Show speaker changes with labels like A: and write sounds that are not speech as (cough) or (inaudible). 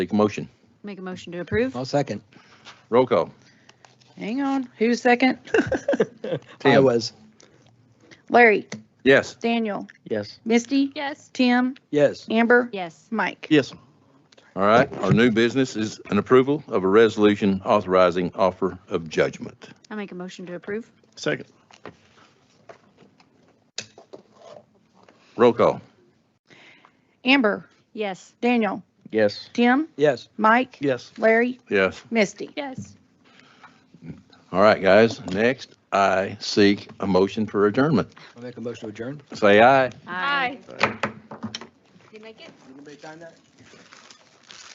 A: Take a motion.
B: Make a motion to approve?
C: I'll second.
A: Roll call.
B: Hang on, who's second?
D: Um,
C: I
A: Tim?
C: was,
E: (laughs) Larry,
A: Yes.
E: Daniel,
D: Yes.
E: Misty,
B: Yes.
E: Tim,
C: yes.
E: Amber,
B: Yes.
E: Mike.
D: Yes.
A: All right. Our new business is an approval of a resolution authorizing offer of judgment.
B: I make a motion to approve?
D: Second.
A: Roll call.
E: Amber,
B: Yes.
E: Daniel,
D: Yes.
E: Tim,
C: Yes.
E: Mike,
D: Yes.
E: Larry,
A: Yes.
E: Misty.
B: Yes.
A: All right, guys. Next, I seek a motion for adjournment.
C: I'll make a motion to adjourn.
A: Say aye.
B: Aye.
F: Did you make it?
C: Anybody time that?